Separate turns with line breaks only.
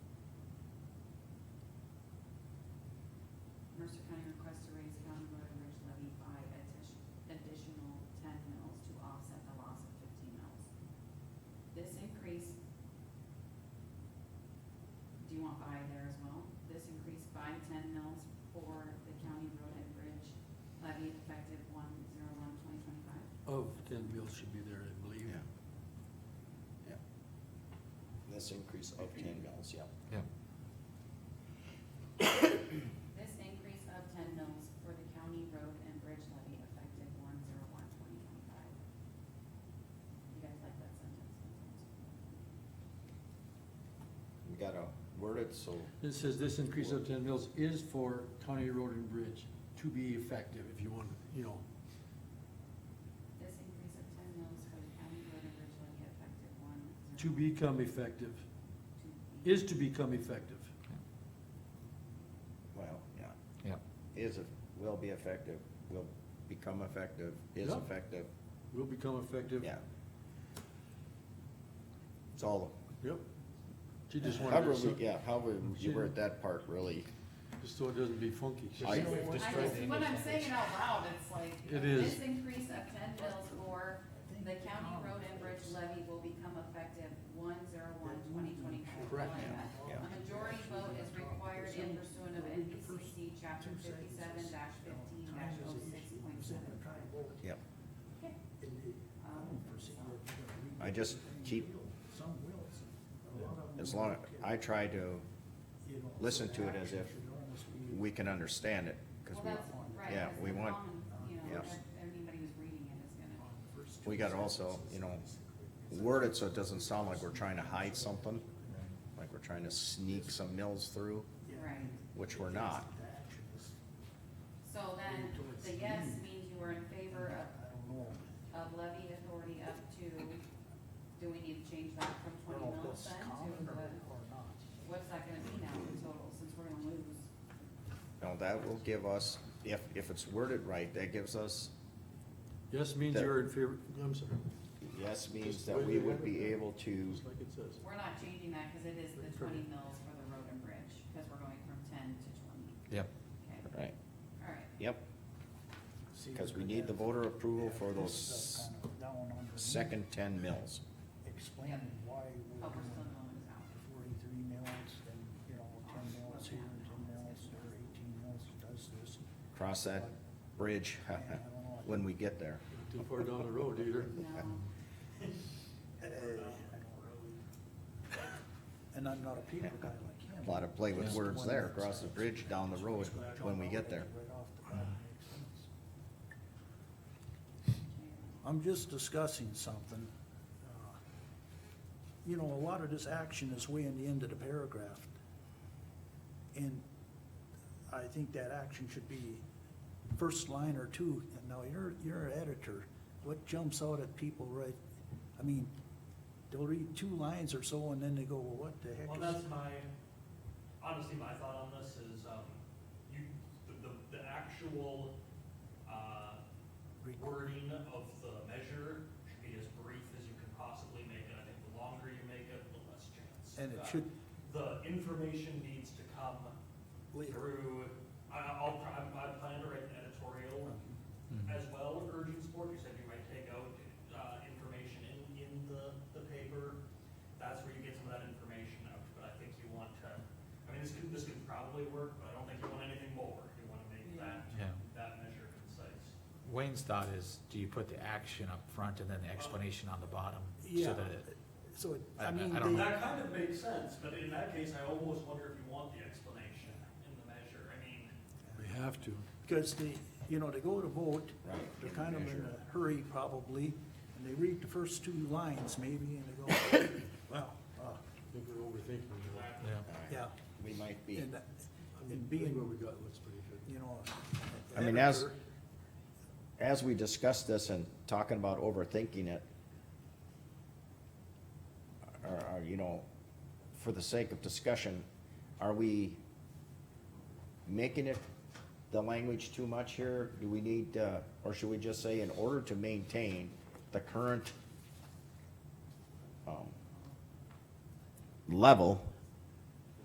County requests to raise county road and bridge levy by addition- additional ten mills to offset the loss of fifteen mills. This increase, do you want by there as well? This increase by ten mills for the county road and bridge levy effective one zero one twenty twenty-five?
Of Oh, ten mills should be there, I believe.
Yeah. Yeah. This increase of ten mills, yeah.
Yep.
This increase of ten mills for the county road and bridge levy effective one zero one twenty twenty-five. You guys like that sentence?
We gotta word it, so,
It says this increase of ten mills is for county road and bridge to be effective, if you want, you know,
This increase of ten mills for the county road and bridge levy effective one zero.
to become effective,
to be-
is to become effective.
well, yeah,
Yep,
is, eff- will be effective, will become effective, is
Yeah.
effective,
Will become effective.
yeah. It's all,
Yep. She just wanted,
however,
it so-
we- yeah, however you
She-
word that part really,
just so it doesn't be funky.
I-
Just the way we've
I just-
described the
When I'm
English
saying it
language.
out loud, it's like.
It is.
This increase of ten mills for the county road and bridge levy will become effective one zero one twenty twenty-five.
Correct.
Yeah.
A majority vote is required in pursuant of NBCC chapter fifty-seven dash fifteen dash oh six point seven five.
yep.
Um,
I just keep, as long, I try to listen to it as if we can understand it, cause
Well,
we,
that's right.
yeah,
'cause
we
the
want-
common, You know,
yes.
that anybody who's reading it is gonna,
we gotta also, you know, word it so it doesn't sound like we're trying to hide something, like we're trying to sneak some mills through,
right.
which we're not.
So then, the yes means you are in favor of, of levy authority up to, do we need to change that from twenty mils then to what? What's that gonna be now in total, since we're gonna lose?
Now, that will give us, if, if it's worded right, that gives us,
Yes means
That-
you're in favor, I'm sorry,
yes means that we would be able to,
just like it says.
We're not changing that, cause it is the twenty mils for the road and bridge, cause we're going from ten to twenty,
yep,
okay,
right,
alright.
yep, because we need the voter approval for those second ten mills.
Explaining why we're
Oh, we're still
doing
going out.
forty-three mills and, you know, ten mills here and ten mills or eighteen mills does this.
Cross that bridge when we get there.
Too far down the road either.
No,
And I'm not a people guy like him.
Lot of play with
Just
words
one
there,
that's-
cross the bridge, down the road, when we get there.
Right off the bat, makes sense.
okay.
I'm just discussing something. Uh, You know, a lot of this action is way in the end of the paragraph. And I think that action should be first line or two. And now you're, you're an editor. What jumps out at people right, I mean, they'll read two lines or so and then they go, well, what the heck
Well,
is?
that's my, honestly, my thought on this is, um, you, the, the, the actual, uh,
Re-
wording of the measure should be as brief as you can possibly make it. I think the longer you make it, the less chance.
And it
Uh,
should-
The information needs to come
Later.
through, I, I'll, pr- I'm- I plan to write an editorial as well, urging support. You said you might take out, uh, information in, in the, the paper. That's where you get some of that information out, but I think you want to, I mean, this could, this could probably work, but I don't think you want anything more. You wanna make that,
yeah.
that measure concise.
Wayne's thought is, do you put the action up front and then the explanation on the bottom? So
Yeah.
that it,
So, it-
I-
I
I-
mean,
I don't
they-
know.
That kind of makes sense, but in that case, I almost wonder if you want the explanation in the measure, I mean,
We have to.
because they, you know, they go to vote.
Right.
They're kind of in a hurry probably, and they read the first two lines maybe, and they go, well, uh,
I think we're overthinking it.
yeah,
yeah.
We might be,
And, that-
I mean,
and
being what
being,
we got looks pretty good.
you know.
I mean, as,
editor,
as we discuss this and talking about overthinking it, or, or, you know, for the sake of discussion, are we making it, the language too much here? Do we need, uh, or should we just say in order to maintain the current, um, level